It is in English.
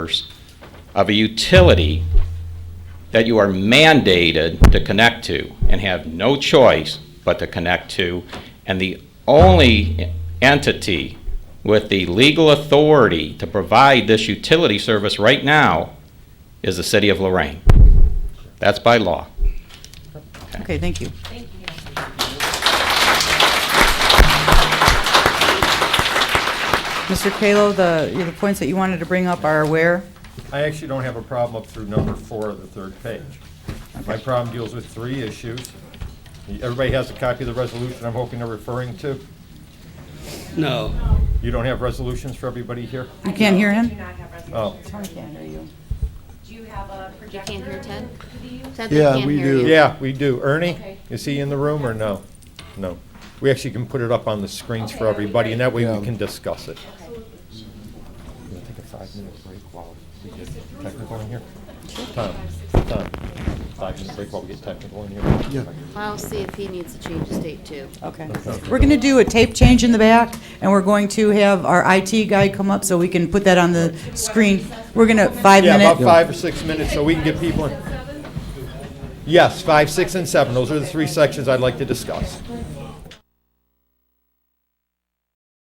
of a utility that you are mandated to connect to and have no choice but to connect to, and the only entity with the legal authority to provide this utility service right now is the city of Lorraine. That's by law. Okay, thank you. Mr. Kalo, the, the points that you wanted to bring up are where? I actually don't have a problem up through number four of the third page. My problem deals with three issues. Everybody has a copy of the resolution I'm hoping they're referring to. No. You don't have resolutions for everybody here? You can't hear Do him? not have Oh. resolutions. Do you have a projector? Can't hear Ted? Do you? Ted, they Yeah, can't we hear do. you. Yeah, we do. Ernie, Okay. is he in the room or no? No. We actually can put it up on the screens for everybody, and that way we can discuss it. We'll take a five-minute break while we get technical in here. Tom, Tom, five-minute break while we get technical in here. I'll see if he needs to change his date too. Okay. We're going to do a tape change in the back, and we're going to have our IT guy come up so we can put that on the screen. We're going to, five Yeah, about minutes. five or six minutes, so we can get people in. Yes, five, six, and seven, those are the three sections I'd like to discuss.